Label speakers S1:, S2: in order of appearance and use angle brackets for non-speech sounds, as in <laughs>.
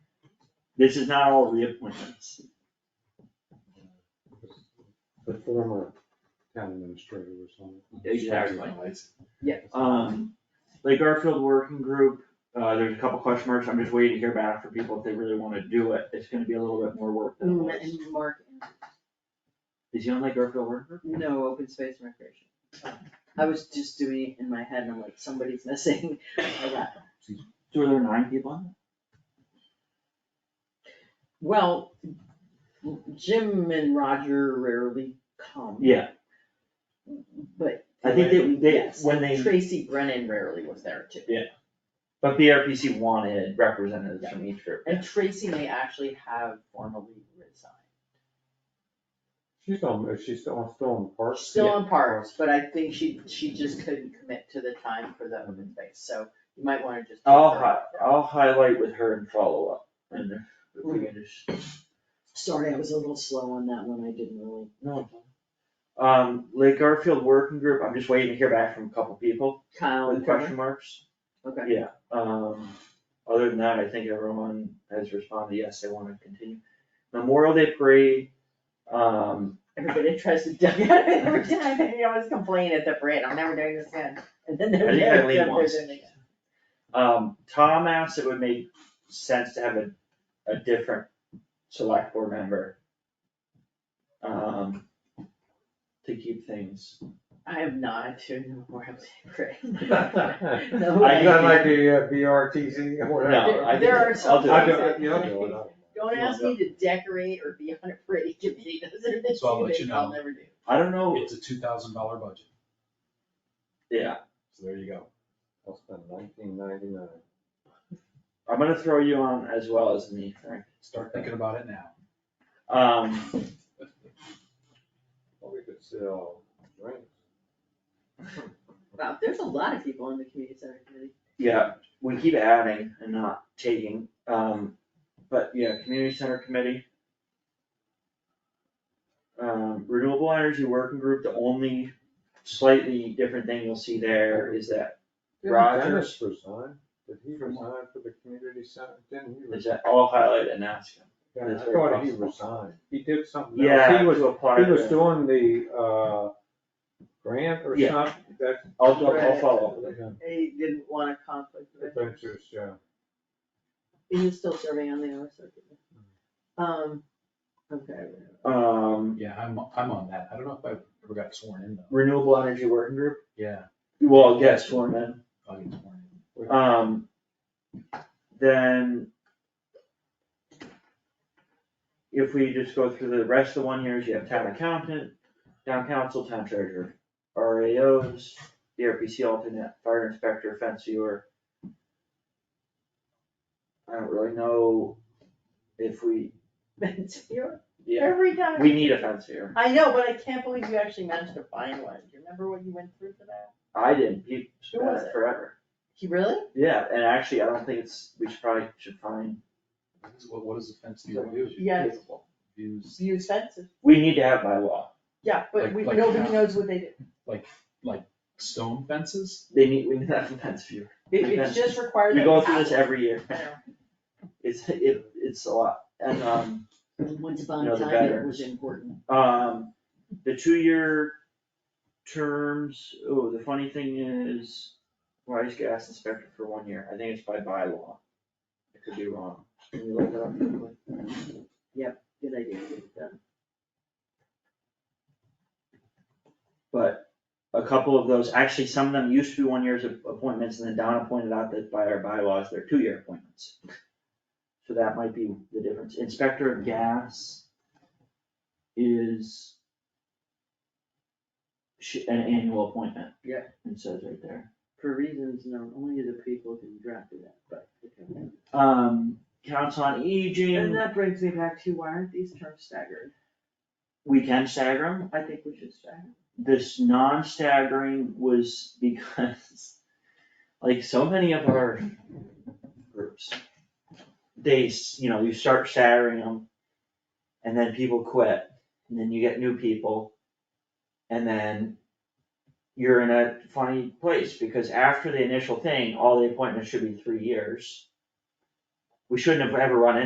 S1: This is not all reappointments.
S2: The former town administrator or something.
S1: Exactly. Um, like Garfield Working Group, uh, there's a couple question marks, I'm just waiting to hear back from people if they really wanna do it, it's gonna be a little bit more work than it
S3: Mm,
S1: was.
S3: And Mark,
S1: Is he on like Garfield Working Group?
S3: no open space and recreation. I was just doing it in my head and I'm like, somebody's missing. <laughs> I got-
S1: So are there nine people on
S3: Well, Jim and Roger rarely come.
S1: it? Yeah,
S3: But.
S1: I think they- they-
S3: Yes,
S1: when they-
S3: Tracy Brennan rarely was there too.
S1: but E BRPC wanted representatives from each group.
S3: And Tracy may actually have formally resigned.
S2: She's on, is she still on, still on the park?
S3: She's still on parks, but I think she, she just couldn't commit to the time for the open space, so you might wanna just. take
S1: I'll
S3: her
S1: Oh, hi-
S3: off.
S1: I'll highlight with her and follow up, and if we can just.
S3: Sorry, I was a little slow on that one, I didn't really.
S1: No. Um, Lake Garfield Working Group, I'm just waiting to hear back from a couple people
S3: Kyle
S1: with
S3: and Trevor?
S1: question marks.
S3: Okay.
S1: Yeah, um, other than that, I think everyone has responded, yes, they wanna continue. Memorial Day Parade, um,
S3: Everybody tries to duck out of it <laughs> every time, and you always complain at the parade, I'm never doing this again, and then they're.
S1: I think I
S3: they're-
S1: leave
S3: they're
S1: once.
S3: doing it again.
S1: um, Tom asked it would make sense to have a, a different select board member. Um, to keep <laughs> things,
S3: I am not doing the Memorial Day <laughs>
S2: <laughs>
S3: parade.
S2: That
S3: No way.
S2: might be uh, BRTC or whatever.
S1: No, I
S3: There
S1: think-
S3: are
S1: I'll
S3: some
S1: do
S2: I
S1: it.
S3: things
S2: don't, you know, I
S3: that,
S2: don't know.
S3: don't ask me to decorate or be on a parade <laughs> committee, those are the
S4: So I'll
S3: two
S4: let you
S3: things I'll
S4: know.
S3: never do.
S1: I don't know,
S4: Oh. It's a two thousand dollar budget,
S1: yeah,
S4: so there you go.
S2: I'll spend nineteen ninety-nine.
S1: I'm gonna throw you on as well as me, Frank.
S4: Start thinking about it now.
S1: Um,
S2: Well, we could sell drinks.
S3: Wow, there's a lot of people on the community center committee.
S1: yeah, we keep adding and not taking, um, but yeah, community center committee. Um, renewable energy working group, the only slightly different thing you'll see there is that,
S2: Didn't
S1: Rogers.
S2: Dennis resign, did he
S1: From what?
S2: resign for the community center, didn't he
S1: is
S2: resign?
S1: that all highlighted and asked.
S2: Yeah,
S1: That's
S2: I
S1: very
S2: thought he
S1: possible.
S2: resigned, he did something else.
S1: Yeah,
S2: He was,
S1: to apply.
S2: he was
S1: to-
S2: doing the, uh, grant or
S1: Yeah.
S2: something, that.
S1: I'll, do- I'll follow up with it.
S3: They didn't want a conflict of interest.
S2: Adventures, yeah.
S3: He was still serving on the other circuit. Um, okay. <laughs>
S1: Um,
S4: Yeah, I'm, I'm on that. I don't know if I ever got sworn in though.
S1: renewable energy working group,
S4: Yeah,
S1: well, yes, sworn in.
S4: I'll get sworn in.
S1: Um, then if we just go through the rest of the one years, you have town accountant, town council, town treasurer, RAOs, the RPC alternate, fire inspector, fence viewer. I don't really know if we,
S3: Vince, you're-
S1: yeah,
S3: Every time,
S1: we need a fence viewer.
S3: I know, but I can't believe you actually managed to find one, do you remember what you went through for that?
S1: I didn't, he
S3: Who
S1: spent
S3: was
S1: it
S3: it?
S1: forever.
S3: He really?
S1: Yeah, and actually, I don't think it's, we should probably should find,
S4: What is- What, what does the fence viewer do?
S3: Yeah, it's,
S4: Views,
S3: you expensive,
S1: we need to have by law.
S3: yeah, but
S4: Like-
S3: we,
S4: like
S3: nobody
S4: how?
S3: knows what they do,
S4: stone fences?
S1: They need, we need to have a fence viewer.
S3: it,
S1: Like
S3: it's just required.
S1: We
S3: that
S1: go through this
S3: have
S1: every year.
S3: one. I know.
S1: It's, it, it's a lot. And, um,
S3: Once upon
S1: No,
S3: a
S1: the
S3: time, it
S1: veterans.
S3: was important.
S1: um, the two-year terms, oh, the funny thing is, why is gas inspector for one year? I think it's by bylaw. I could be wrong. Can you look that up real quick?
S3: Good idea, get it done.
S1: But a couple of those, actually, some of them used to be one year's of appointments, and then Donna pointed out that by our bylaws, they're two-year appointments. So that might be the difference. Inspector of gas is sh- an annual appointment.
S3: Yeah.
S1: It says right there.
S3: For reasons known only to the people who drafted that, but.
S1: Um, Council on
S3: And
S1: Aging,
S3: that brings me back to, why aren't these terms staggered?
S1: we can stagger 'em.
S3: I think we should stagger.
S1: this non-staggering was because, <laughs> like so many of our groups, they, s- you know, you start staggering them, and then people quit, and then you get new people, and then you're in a funny place, because after the initial thing, all the appointments should be three years. We shouldn't have ever run